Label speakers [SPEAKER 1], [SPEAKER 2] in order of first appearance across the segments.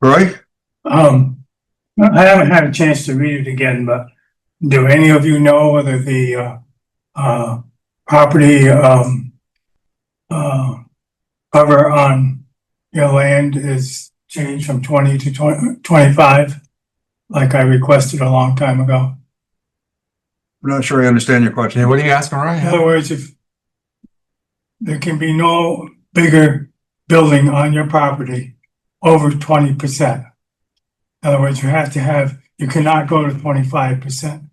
[SPEAKER 1] Roy?
[SPEAKER 2] Um, I haven't had a chance to read it again, but do any of you know whether the, uh, uh, property, um, uh, cover on your land is changed from twenty to twenty, twenty-five? Like I requested a long time ago.
[SPEAKER 1] I'm not sure I understand your question.
[SPEAKER 3] Yeah, what are you asking,
[SPEAKER 2] In
[SPEAKER 4] Oh,
[SPEAKER 3] Ryan?
[SPEAKER 2] other words, if there can be no bigger building on your property over twenty percent. In other words, you have to have, you cannot go to twenty-five percent.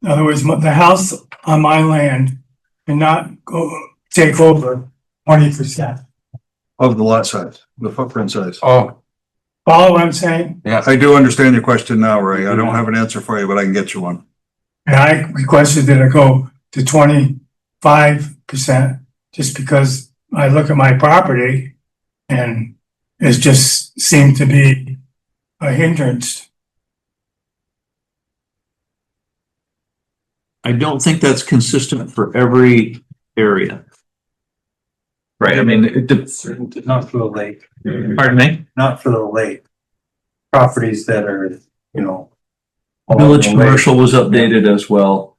[SPEAKER 2] In other words, mo- the house on my land cannot go, take over twenty percent.
[SPEAKER 1] Of the lot size, the footprint size.
[SPEAKER 3] Oh,
[SPEAKER 2] Follow what I'm saying?
[SPEAKER 3] yes.
[SPEAKER 1] I do understand your question now, Ray. I don't have an answer for you, but I can get you one.
[SPEAKER 2] And I requested that it go to twenty-five percent just because I look at my property and it just seemed to be a hindrance.
[SPEAKER 5] I don't think that's consistent for every area.
[SPEAKER 6] Right, I mean, it did. Not for the lake,
[SPEAKER 5] Pardon me?
[SPEAKER 6] not for the lake. Properties that are, you know. along
[SPEAKER 5] Village
[SPEAKER 6] the lake.
[SPEAKER 5] commercial was updated as well.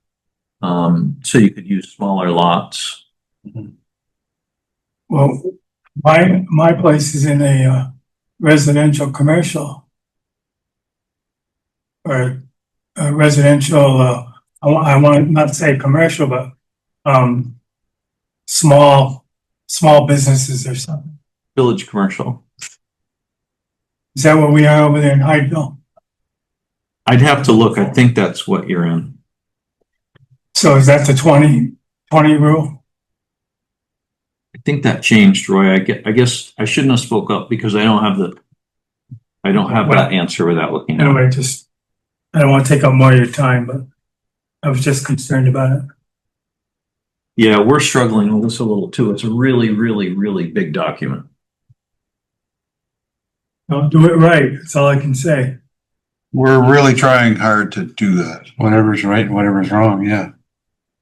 [SPEAKER 5] Um, so you could use smaller lots.
[SPEAKER 2] Well, my, my place is in a uh, residential commercial. Or a residential, uh, I want, I want to not say commercial, but, um, small, small businesses or something.
[SPEAKER 5] Village commercial.
[SPEAKER 2] Is that what we are over there in Hydeville?
[SPEAKER 5] I'd have to look. I think that's what you're in.
[SPEAKER 2] So is that the 20 20 rule?
[SPEAKER 5] I think that changed, Roy. I get, I guess I shouldn't have spoke up because I don't have the, I don't have that answer without looking. at it.
[SPEAKER 2] Anyway, just, I don't want to take up more of your time, but I was just concerned about it.
[SPEAKER 5] Yeah, we're struggling with this a little too. It's a really, really, really big document.
[SPEAKER 2] Don't do it right. That's all I can say.
[SPEAKER 1] We're really trying hard to do that.
[SPEAKER 4] Whatever's right, and whatever's wrong, yeah.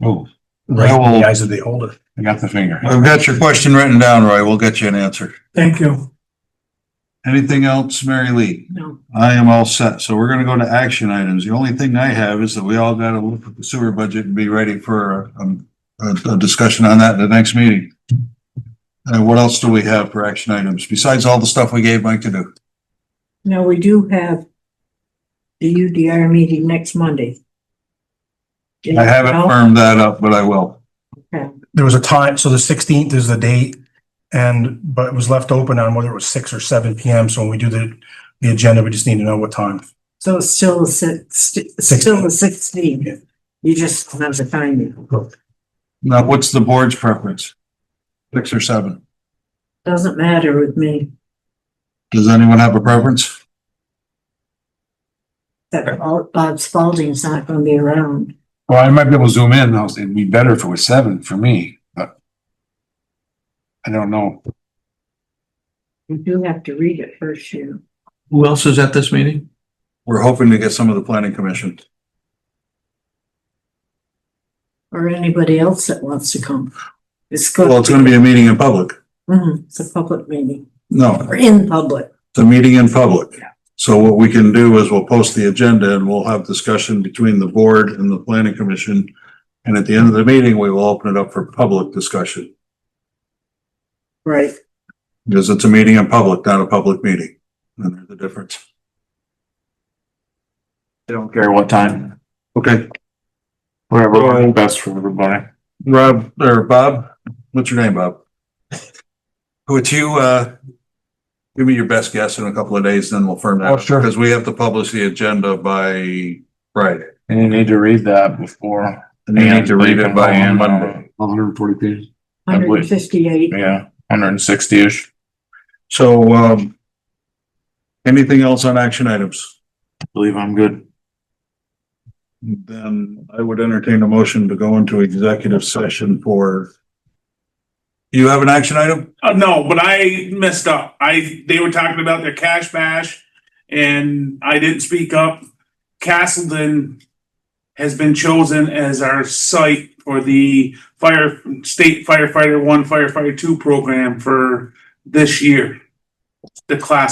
[SPEAKER 4] Oh,
[SPEAKER 6] Right, in
[SPEAKER 4] Well-
[SPEAKER 6] the eyes of the holder.
[SPEAKER 4] I got the finger.
[SPEAKER 1] I've got your question written down, Roy. We'll get you an answer.
[SPEAKER 2] Thank you.
[SPEAKER 1] Anything else, Mary Lee?
[SPEAKER 5] No.
[SPEAKER 1] I am all set. So we're gonna go to action items. The only thing I have is that we all gotta look at the sewer budget and be ready for um, a, a discussion on that in the next meeting. And what else do we have for action items besides all the stuff we gave Mike to do?
[SPEAKER 7] Now, we do have the UDR meeting next Monday.
[SPEAKER 1] I haven't
[SPEAKER 7] No?
[SPEAKER 1] firmed that up, but I will.
[SPEAKER 8] there was a time, so the sixteenth is the date. And, but it was left open on whether it was six or seven PM. So when we do the, the agenda, we just need to know what time.
[SPEAKER 7] So it's still the six, still the sixteen. You just don't have the timing.
[SPEAKER 1] Now, what's the board's preference? Six or seven?
[SPEAKER 7] Doesn't matter with me.
[SPEAKER 1] Does anyone have a preference?
[SPEAKER 7] That Bob Spalding's not gonna be around.
[SPEAKER 4] Well, I might be able to zoom in, though. It'd be better if it was seven for me, but I don't know.
[SPEAKER 7] You do have to read it first, you.
[SPEAKER 5] Who else is at this meeting?
[SPEAKER 1] We're hoping to get some of the planning commission.
[SPEAKER 7] Or anybody else that wants to come. It's good.
[SPEAKER 1] Well, it's gonna be a meeting in public.
[SPEAKER 7] Mhm, it's a public meeting.
[SPEAKER 1] No,
[SPEAKER 7] Or in public.
[SPEAKER 1] it's a meeting in public. So what we can do is we'll post the agenda and we'll have discussion between the board and the planning commission. And at the end of the meeting, we will open it up for public discussion
[SPEAKER 7] Right.
[SPEAKER 1] because it's a meeting in public, not a public meeting. And there's a difference.
[SPEAKER 6] They don't care what time,
[SPEAKER 1] Okay,
[SPEAKER 6] whatever works best for everybody.
[SPEAKER 1] Rob, or Bob, what's your name, Bob? Would you, uh, give me your best guess in a couple of days, then we'll firm that.
[SPEAKER 4] Oh, sure.
[SPEAKER 1] Because we have to publish the agenda by Friday.
[SPEAKER 4] And you need to read that before.
[SPEAKER 1] And you need to read it by Monday.
[SPEAKER 4] Hundred and forty pages. I
[SPEAKER 7] Hundred
[SPEAKER 4] believe-
[SPEAKER 7] and fifty-eight.
[SPEAKER 4] Yeah, hundred and sixty-ish.
[SPEAKER 1] So, um, anything else on action items?
[SPEAKER 4] Believe I'm good.
[SPEAKER 1] Then I would entertain a motion to go into executive session for you have an action item?
[SPEAKER 9] Uh, no, but I messed up. I, they were talking about their cash bash and I didn't speak up. Castleton has been chosen as our site for the fire, state firefighter one, firefighter two program for this year. The class